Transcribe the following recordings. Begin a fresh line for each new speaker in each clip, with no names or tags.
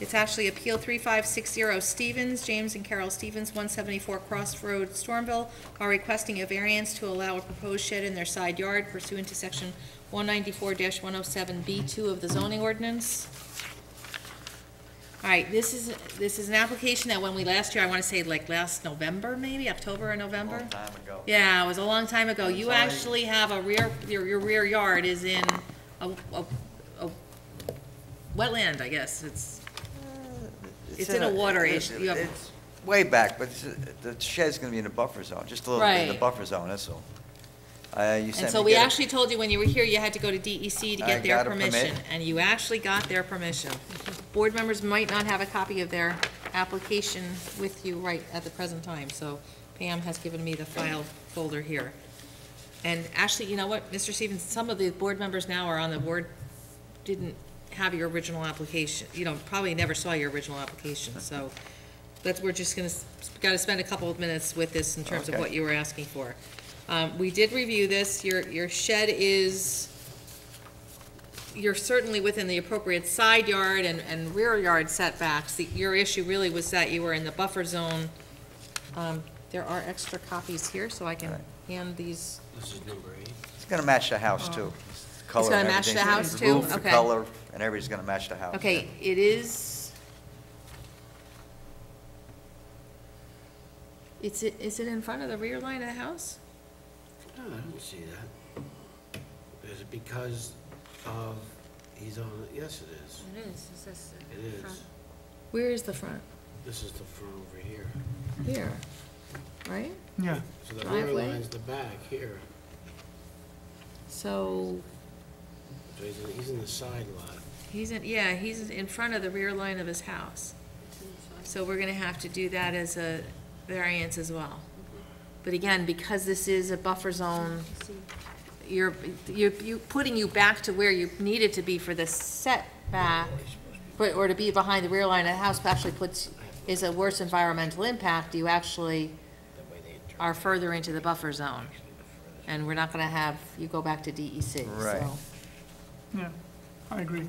It's actually Appeal 3560 Stevens, James and Carol Stevens, 174 Cross Road, Stormville, are requesting a variance to allow a proposed shed in their side yard pursuant to Section 194-107B2 of the zoning ordinance. All right, this is, this is an application that when we last year, I want to say like last November, maybe, October or November?
Long time ago.
Yeah, it was a long time ago. You
Sorry.
actually have a rear, your, your rear yard is in a, a, a wetland, I guess. It's, It's in a water
it's-
issue. You have-
It's way back, but it's- the shed's gonna be in a buffer zone, just a little bit in the
Right.
buffer zone, that's all. Uh, you sent me.
and so we
get a-
actually told you when you were here, you had to go to DEC to
I
get their
got a permit.
permission. And you actually got their permission. Board members might not have a copy of their application with you right at the present time, so Pam has given me the file folder here. And actually, you know what, Mr. Stevens, some of the board members now are on the board, didn't have your original application, you know, probably never saw your original application, so that's, we're just gonna, s- gotta spend a couple of minutes with this in terms of
Okay.
what you were asking for. Um, we did review this, your, your shed is, you're certainly within the appropriate side yard and, and rear yard setbacks. The- Your issue really was that you were in the buffer zone. Um, there are extra copies here, so I can
Right.
hand these
This is number eight.
It's gonna match the house, too. Color
Oh. gonna
and
match the
everything.
house,
The
too?
Roof, the
Okay.
color, and everything's gonna match the house.
Okay, it is. It's, i- is it in front of the rear line of the house?
No, Ah, I don't see that. Is it because of, he's on, yes, it is.
It is, is this
It is.
Where is the front?
This is the front over here.
Here, right?
Yeah,
So the rear
Driveway?
line's the back here.
So,
So he's in, he's in the side lot.
he's in, yeah, he's in front of the rear line of his house. So we're gonna have to do that as a variance as well. But again, because this is a buffer zone, you're, you're, you, putting you back to where you needed to be for the setback, but, or to be behind the rear line of the house actually puts, is a worse environmental impact, you actually are further into the buffer zone. And we're not gonna have, you go back to DEC, so.
Right.
yeah, I agree.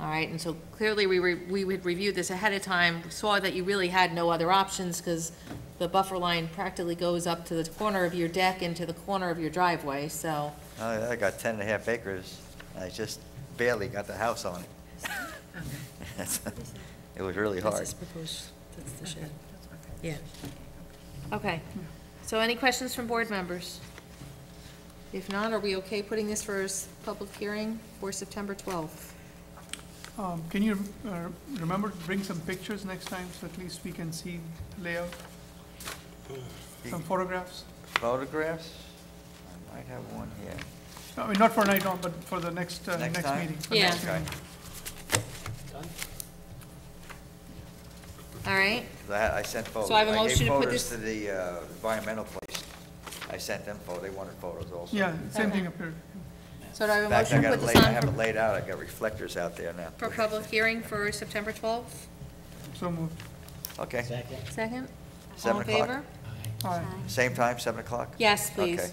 All right, and so clearly, we were, we had reviewed this ahead of time, saw that you really had no other options, because the buffer line practically goes up to the corner of your deck into the corner of your driveway, so.
I I got ten and a half acres, and I just barely got the house on it. It was really hard.
proposed, that's the shed. Yeah. Okay, so any questions from board members? If not, are we okay putting this for a s- public hearing for September twelfth?
Um, Can you uh, remember to bring some pictures next time, so at least we can see layout?
Uh,
Some photographs?
Photographs? I might have one here.
I mean, not for night on, but for the next, uh,
Next
next
time?
meeting. for
Yeah.
next
Okay.
meeting.
Done?
All right,
'Cause I had- I sent photos.
So I have a motion to
gave
put
photos
this-
to the uh, environmental place. I sent them photos, they wanted photos also.
Yeah, same
Okay.
thing up here.
so do I have a
In fact,
motion
I
to
got
put
it
this
laid, I
on
have it
for,
laid out, I got reflectors out there now.
for public hearing for September twelfth?
So moved.
Okay,
Second.
Second? All
Seven o'clock.
in favor?
Aye.
All right,
same time, 7 o'clock?
Yes, please.
Okay,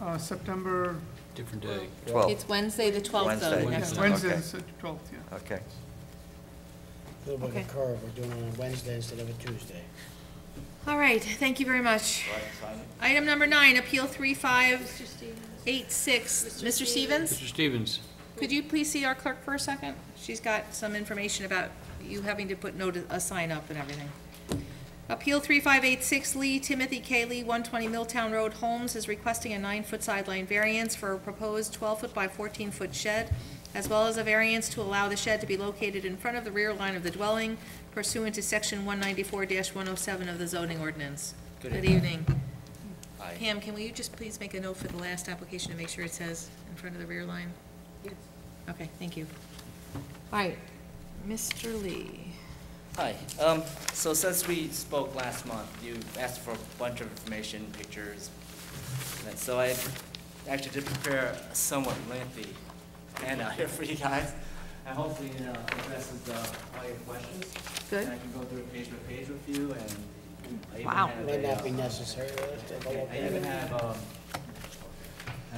uh, September,
Different day.
12,
It's Wednesday, the twelfth, though,
Wednesday.
next
yeah,
month.
Wednesday,
Okay.
is the twelfth, yeah.
okay.
Little bit
Okay.
of a curve, we're doing it on Wednesday instead of a Tuesday.
All right, thank you very much. Item number nine, Appeal three five eight six. Mr. Stevens,
Mr. Stevens,
could you please see our clerk for a second? She's got some information about you having to put notice, a sign up and everything. Appeal three five eight six Lee, Timothy K. Lee, one twenty Milltown Road, Holmes is requesting a nine-foot sideline variance for a proposed twelve-foot by fourteen-foot shed, as well as a variance to allow the shed to be located in front of the rear line of the dwelling pursuant to section one ninety-four one oh seven of the zoning ordinance. Good evening. Pam, can we just please make a note for the last application to make sure it says in front of the rear line? Yes. Okay, thank you. All right, Mr. Lee.
Hi, um, so since we spoke last month, you asked for a bunch of information, pictures, and so I actually did prepare a somewhat lengthy handout here for you guys, and hopefully it uh, addresses uh, all your questions.
Good.
And I can go through it page by page with you, and I even
Wow.
have
Might
a,
not be
uh,
necessary, but it's a little
I even
bit.
have, um,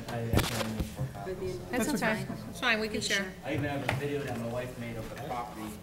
I I actually have four copies.
That's
That's
okay.
okay.
It's fine, we can share.
I even have a video that my wife made of the property,